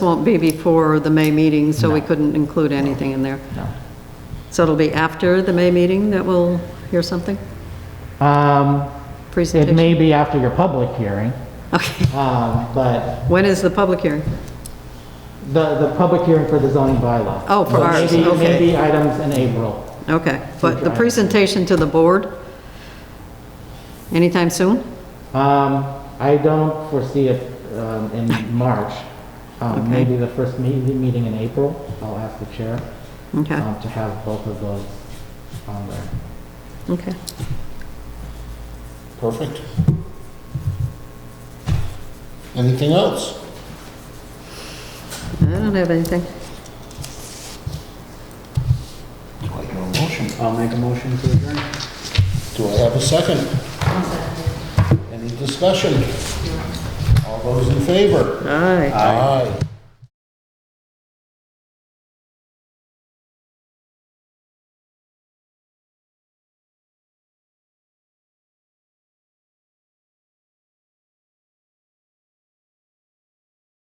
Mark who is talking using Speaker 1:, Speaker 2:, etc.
Speaker 1: won't be before the May meeting, so we
Speaker 2: No.
Speaker 1: couldn't include anything in there.
Speaker 2: No.
Speaker 1: So it'll be after the May meeting that we'll hear something?
Speaker 2: Um, It
Speaker 1: Presentation?
Speaker 2: may be after your public hearing,
Speaker 1: Okay.
Speaker 2: um, but
Speaker 1: When is the public hearing?
Speaker 2: the, the public hearing for the zoning bylaw.
Speaker 1: Oh, for
Speaker 2: So
Speaker 1: ours,
Speaker 2: maybe-
Speaker 1: okay.
Speaker 2: Maybe items in April.
Speaker 1: Okay, but
Speaker 2: Future
Speaker 1: the
Speaker 2: items.
Speaker 1: presentation to the board? Anytime soon?
Speaker 2: Um, I don't foresee it um, in March. Um, Maybe the first me- meeting in April, I'll ask the chair
Speaker 1: Okay,
Speaker 2: um, to have both of those on there.
Speaker 1: okay.
Speaker 3: Perfect. Anything else?
Speaker 1: I don't have anything.
Speaker 3: Do I hear a motion?
Speaker 4: I'll make a motion to adjourn.
Speaker 3: Do I have a second? Any discussion? All those in favor?
Speaker 1: Aye.
Speaker 3: Aye.